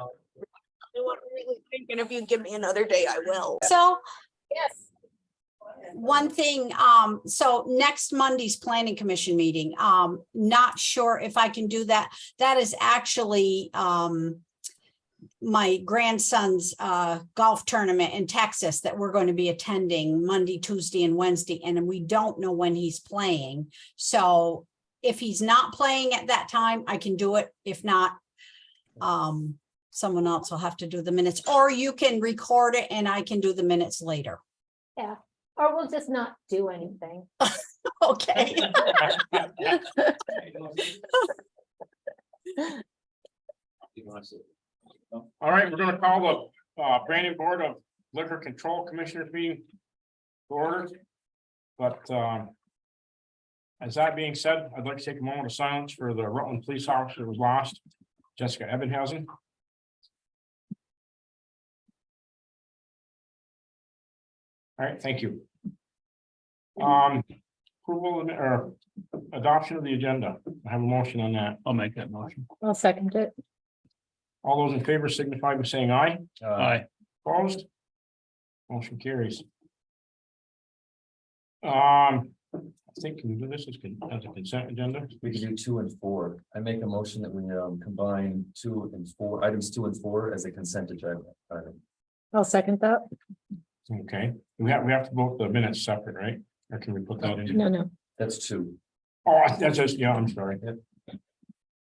I wasn't really thinking if you give me another day, I will. So Yes. one thing, um, so next Monday's planning commission meeting, um, not sure if I can do that. That is actually, um, my grandson's, uh, golf tournament in Texas that we're going to be attending Monday, Tuesday and Wednesday, and we don't know when he's playing. So if he's not playing at that time, I can do it. If not, um, someone else will have to do the minutes, or you can record it and I can do the minutes later. Or we'll just not do anything. Okay. All right, we're gonna call the uh Brandon Board of Liquor Control Commissioners meeting. to Order. But um. As that being said, I'd like to take a moment of silence for the Rutland Police Officer who was lost, Jessica Ebenhausen. All right, thank you. Um, approval and- or adoption of the agenda. I have a motion on that. I'll make that motion. I'll second it. All those in favor signify by saying aye. Aye. Opposed? Motion carries. Um, I think we can do this as con- as a consent agenda. We can do two and four. I make a motion that we um combine two and four, items two and four as a consent agenda. item. I'll second that. Okay, we have, we have to vote the minutes separate, right? Or can we put that in? No, no. That's two. Oh, that's just, yeah, I'm sorry. Yep.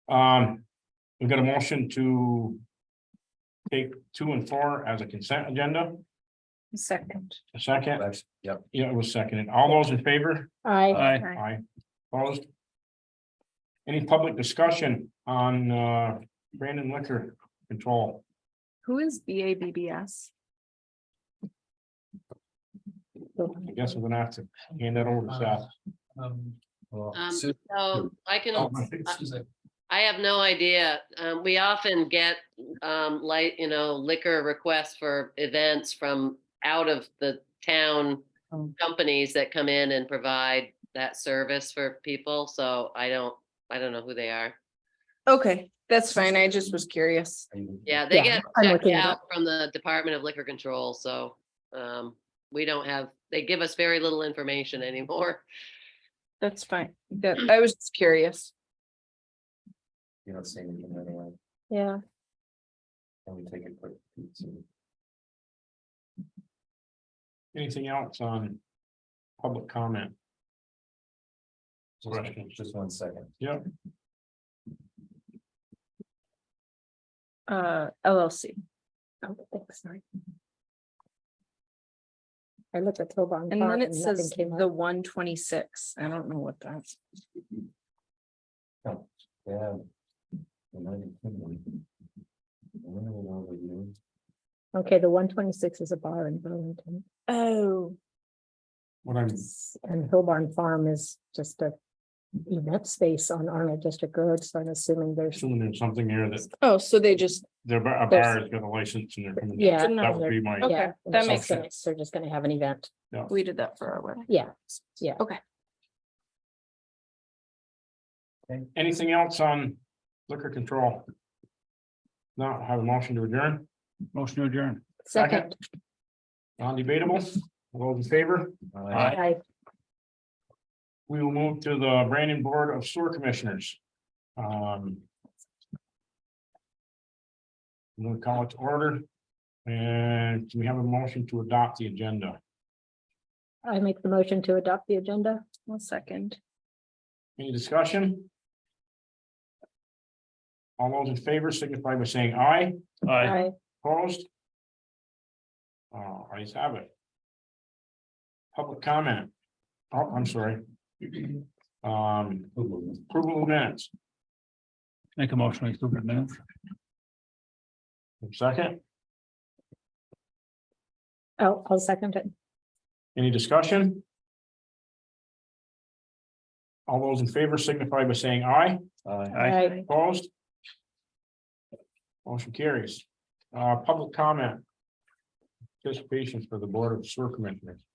Um, we've got a motion to take two and four as a consent agenda, Second. a second. Actually, Yep, Uh, Yeah, it was seconded. All those in favor? I, Aye. Aye. Opposed? Any public discussion on uh Brandon liquor control? Who is B A B B S? I guess we're gonna have to hand that over to Seth. well, Um, Sue- So I Oh, uh, can, my goodness. I have no idea. Um, we often get, um, like, you know, liquor requests for events from out of the town Oh. companies that come in and provide that service for people. So I don't, I don't know who they are. Okay, that's fine. I just was curious. are you- Yeah, they Yeah, get I'm checked looking it out from the Department of Liquor Control, so, um, we don't have, they give us very little information anymore. That's fine. That, I was just curious. You don't say anything right away. yeah, Can we take a quick? peek to- Anything else on public comment? Right. Just just one second. Uh, LLC. oh, thanks, sorry. I looked at Tobin. And Park then it nothing says came up. the one twenty-six. I don't know what that's. Oh, Yeah. United Kingdom. I wonder what all they do. Okay, the one twenty-six is a bar in Burlington Oh. What I'm, and Hillbarn Farm is just a event space on Arnold District Road, so I'm assuming there's, assuming there's something here that Oh, so they just, their bar a bar has got a license and they're coming. Yeah. down. That would be my, Okay, yeah. that they're just makes gonna- sense. They're just gonna have an event, we did that for our wedding. yeah. anything else on liquor control? Now, have a motion to adjourn, Motion to adjourn. Second. Second, non-debatable, all those in favor? Aye. I We will move to the Brandon Board of Sewer Commissioners. Um. We'll call it to order. And we have a motion to adopt the agenda. I make the motion to adopt the agenda. One second. Any discussion? All those in favor signify by saying aye. Aye. I Opposed? Uh, I have it. Public comment. Oh, I'm sorry. Um, approval of minutes. Make a motion, we approve the minutes. Second, Oh, I'll second it. any discussion? All those in favor signify by saying aye. Aye. Aye. I Opposed? Motion carries. Uh, public comment. Participation for the Board of Sewer Commissioners.